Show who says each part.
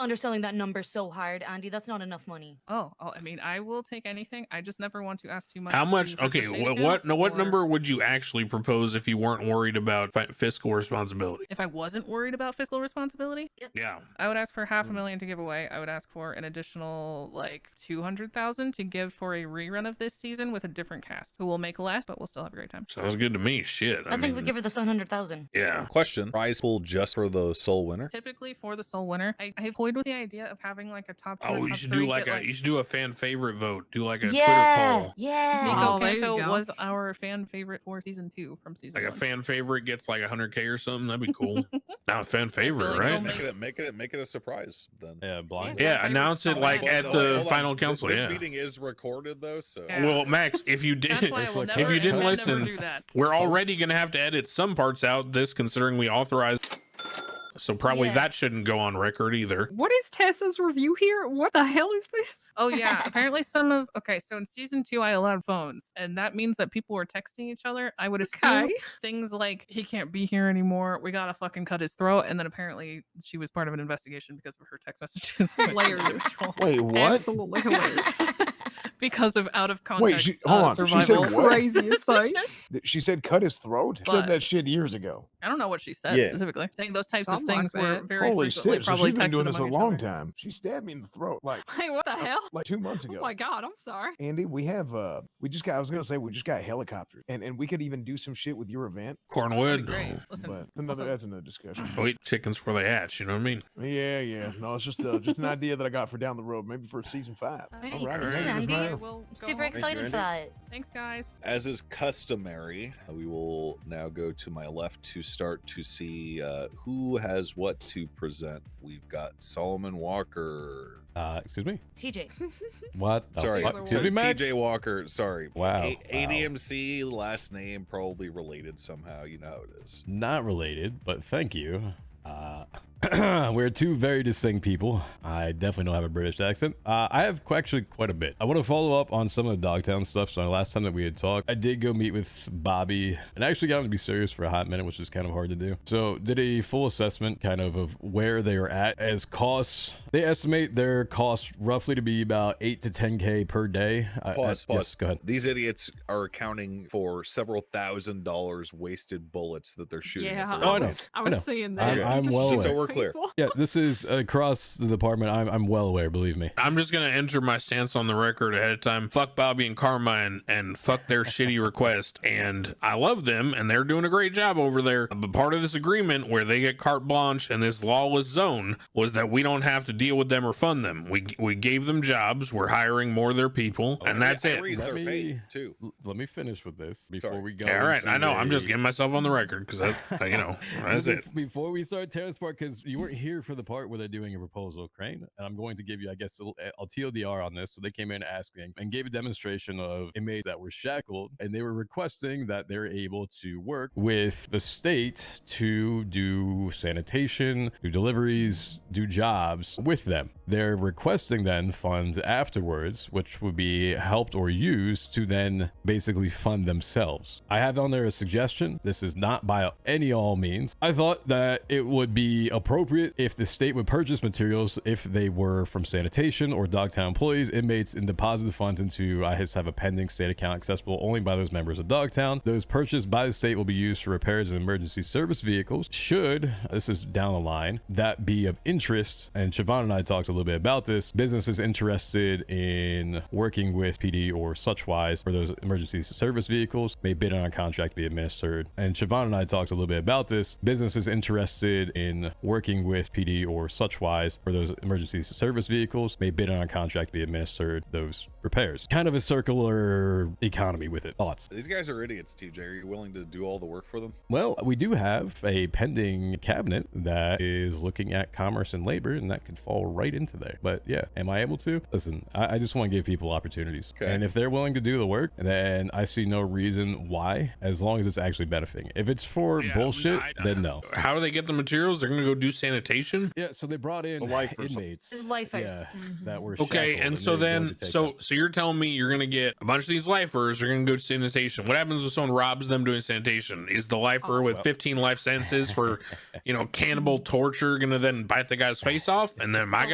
Speaker 1: underselling that number so hard, Andy. That's not enough money.
Speaker 2: Oh, oh, I mean, I will take anything. I just never want to ask too much.
Speaker 3: How
Speaker 2: for
Speaker 3: much?
Speaker 2: for
Speaker 3: Okay,
Speaker 2: state
Speaker 3: what
Speaker 2: account
Speaker 3: what no, what
Speaker 2: or-
Speaker 3: number would you actually propose if you weren't worried about fi- fiscal responsibility?
Speaker 2: If I wasn't worried about fiscal responsibility,
Speaker 3: Yeah,
Speaker 2: I would ask for half a
Speaker 3: Mm.
Speaker 2: million to give away. I would ask for an additional like two hundred thousand to give for a rerun of this season with a different cast, who will make less, but will still have a great time.
Speaker 3: sounds good to me. Shit,
Speaker 1: I, think we
Speaker 3: mean,
Speaker 1: give her the seven hundred thousand.
Speaker 3: Yeah,
Speaker 4: Question: Prize pool just for the sole winner?
Speaker 2: Typically for the sole winner, I, I have toyed with the idea of having like a top two. or
Speaker 3: Oh, you
Speaker 2: top
Speaker 3: should
Speaker 2: three,
Speaker 3: do like
Speaker 2: get,
Speaker 3: a you should do a fan favorite vote. Do like a Twitter
Speaker 1: Yeah,
Speaker 3: poll.
Speaker 1: yeah.
Speaker 2: Nico
Speaker 5: Oh, there you
Speaker 2: Kanto
Speaker 5: go.
Speaker 2: was our fan favorite for season two from season
Speaker 3: Like a
Speaker 2: one.
Speaker 3: fan favorite gets like hundred k or something. That'd be cool. Not a fan favorite,
Speaker 2: like
Speaker 3: right?
Speaker 2: they'll
Speaker 4: Make it, make it, make it a surprise then.
Speaker 6: Yeah, blind.
Speaker 2: Yeah,
Speaker 3: Yeah, announce it
Speaker 2: so
Speaker 3: like
Speaker 2: bad.
Speaker 3: at
Speaker 4: Hold on,
Speaker 3: the
Speaker 4: hold on.
Speaker 3: final
Speaker 4: This-
Speaker 3: council.
Speaker 4: This,
Speaker 3: yeah.
Speaker 4: meeting is recorded though, so
Speaker 2: Yeah.
Speaker 3: Well, Max, if you
Speaker 2: That's
Speaker 3: did,
Speaker 2: why I
Speaker 6: It's
Speaker 2: will
Speaker 6: like-
Speaker 2: never,
Speaker 3: if you didn't
Speaker 2: I would never
Speaker 3: listen-
Speaker 2: do that.
Speaker 3: we're already gonna have to edit some parts out. This considering we authorized, so probably
Speaker 1: Yeah.
Speaker 3: that shouldn't go on record either.
Speaker 5: What is Tessa's review here? What the hell is this?
Speaker 2: Oh yeah. Apparently some of okay, so in season two I allowed phones, and that means that people were texting each other. I would assume
Speaker 5: Okay.
Speaker 2: things like he can't be here anymore, we gotta fucking cut his throat, and then apparently she was part of an investigation because of her text messages. with
Speaker 5: Layered.
Speaker 2: individual-
Speaker 7: Wait, what?
Speaker 5: Absolutely hilarious.
Speaker 2: because of out of context.
Speaker 7: Wait, she- hold
Speaker 2: uh,
Speaker 7: on, she said
Speaker 2: survival
Speaker 7: what?
Speaker 5: Craziest thing.
Speaker 2: messages.
Speaker 7: Th- She said cut his throat. She
Speaker 2: But-
Speaker 7: said that shit years ago.
Speaker 2: I don't know what she said
Speaker 4: Yeah.
Speaker 2: specifically. Saying those types
Speaker 5: Something
Speaker 2: of
Speaker 5: like
Speaker 2: things were
Speaker 5: that.
Speaker 2: very frequently
Speaker 7: Holy shit! So
Speaker 2: probably
Speaker 7: she's been doing
Speaker 2: texted
Speaker 7: this a
Speaker 2: among each
Speaker 7: long
Speaker 2: other.
Speaker 7: time. She stabbed me in the throat like
Speaker 5: Wait, what the hell?
Speaker 7: like two months ago.
Speaker 5: Oh my god, I'm sorry.
Speaker 7: Andy, we have uh we just got I was gonna say we just got helicopters and and we could even do some shit with your event,
Speaker 2: That'd
Speaker 3: Cornwood.
Speaker 2: be great. Listen,
Speaker 7: but another
Speaker 2: also-
Speaker 7: that's another discussion.
Speaker 3: Wait, chickens for the hatch. You know what I mean?
Speaker 7: Yeah, yeah. No, it's just uh, just an idea that I got for down the road, maybe for season five.
Speaker 1: Alright,
Speaker 7: Alrighty,
Speaker 3: good,
Speaker 7: that was
Speaker 1: Andy.
Speaker 7: my-
Speaker 2: I will go
Speaker 1: Super
Speaker 2: home.
Speaker 1: excited for that.
Speaker 2: Thanks, guys.
Speaker 4: As is customary, we will now go to my left to start to see uh, who has what to present. We've got Solomon Walker.
Speaker 6: Uh, excuse me.
Speaker 1: TJ.
Speaker 6: Oh, What? the
Speaker 4: sorry,
Speaker 6: fuck?
Speaker 2: Taylor
Speaker 6: Excuse me,
Speaker 4: T-
Speaker 6: Max.
Speaker 4: TJ Walker. Sorry.
Speaker 6: Wow,
Speaker 4: A-
Speaker 6: wow.
Speaker 4: ADMC, last name, probably related somehow. You know how it is.
Speaker 6: Not related, but thank you. Uh, we're two very distinct people. I definitely don't have a British accent. Uh, I have qu- actually quite a bit. I want to follow up on some of the Dogtown stuff. So, last time that we had talked, I did go meet with Bobby and I actually got him to be serious for a hot minute, which is kind of hard to do. So, did a full assessment kind of of where they are at as costs. They estimate their cost roughly to be about 8 to 10K per day. I- I-
Speaker 4: Pause, pause.
Speaker 6: yes, go ahead.
Speaker 4: These idiots are accounting for several thousand dollars wasted bullets that they're shooting.
Speaker 5: Yeah.
Speaker 4: At the
Speaker 6: Oh, I know.
Speaker 4: robots.
Speaker 5: I
Speaker 6: I
Speaker 5: was
Speaker 6: know.
Speaker 5: seeing that.
Speaker 6: I'm-
Speaker 5: You
Speaker 6: I'm
Speaker 5: just
Speaker 6: well
Speaker 5: shoot
Speaker 4: aware. So we're clear.
Speaker 5: people.
Speaker 6: Yeah, this is across the department. I'm, I'm well aware, believe me.
Speaker 3: I'm just gonna enter my stance on the record ahead of time. Fuck Bobby and Carmine and fuck their shitty request. And I love them and they're doing a great job over there. But part of this agreement where they get carte blanche and this lawless zone was that we don't have to deal with them or fund them. We we gave them jobs. We're hiring more of their people,
Speaker 6: Oh,
Speaker 3: and
Speaker 6: yeah,
Speaker 3: that's
Speaker 4: I
Speaker 3: it.
Speaker 4: raise
Speaker 6: Let
Speaker 4: their
Speaker 6: me-
Speaker 4: pay, too.
Speaker 6: L- let me finish with this before
Speaker 4: Sorry.
Speaker 6: we go.
Speaker 3: Yeah, all right, I know. I'm just getting
Speaker 6: getting
Speaker 3: myself on the record because I, you know, that's it.
Speaker 6: Before we start tearing this apart, because you weren't here for the part where they're doing a proposal, Crane, and I'm going to give you, I guess, a l- I'll TLDR on this. So they came in asking and gave a demonstration of inmates that were shackled, and they were requesting that they're able to work with the state to do sanitation, do deliveries, do jobs with them. They're requesting then funds afterwards, which would be helped or used to then basically fund themselves. I have on there a suggestion. This is not by any all means. I thought that it would be appropriate if the state would purchase materials if they were from sanitation or Dogtown employees, inmates, and deposit the funds into I just have a pending state account accessible only by those members of Dogtown. Those purchased by the state will be used for repairs and emergency service vehicles. Should this is down the line that be of interest, and Siobhan and I talked a little bit about this. Businesses interested in working with PD or such wise for those emergency service vehicles may bid on a contract to be administered. And Siobhan and I talked a little bit about this. Businesses interested in working with PD or such wise for those emergency service vehicles may bid on a contract to be administered those repairs. Kind of a circular economy with it. Thoughts?
Speaker 4: These guys are idiots, TJ. Are you willing to do all the work for them?
Speaker 6: Well, we do have a pending cabinet that is looking at commerce and labor, and that could fall right into there. But yeah, am I able to? Listen, I, I just want to give people opportunities.
Speaker 4: Okay.
Speaker 6: And if they're willing to do the work, then I see no reason why, as long as it's actually benefiting. If it's for
Speaker 3: Yeah,
Speaker 6: bullshit,
Speaker 3: I- I-
Speaker 6: then no.
Speaker 3: How do they get the materials? They're gonna go do sanitation.
Speaker 6: Yeah, so they brought in
Speaker 4: The life or something.
Speaker 6: inmates
Speaker 1: Lifers.
Speaker 6: yeah, that were
Speaker 3: Okay,
Speaker 6: shackled,
Speaker 3: and so
Speaker 6: they were willing
Speaker 3: then,
Speaker 6: to take
Speaker 3: so
Speaker 6: them.
Speaker 3: so you're telling me you're gonna get a bunch of these lifers. They're gonna go to sanitation. What happens if someone robs them doing sanitation? Is the lifer
Speaker 5: Oh,
Speaker 3: with
Speaker 6: well.
Speaker 3: 15 life sentences for you know cannibal torture gonna then bite the guy's face off? And then am I
Speaker 1: So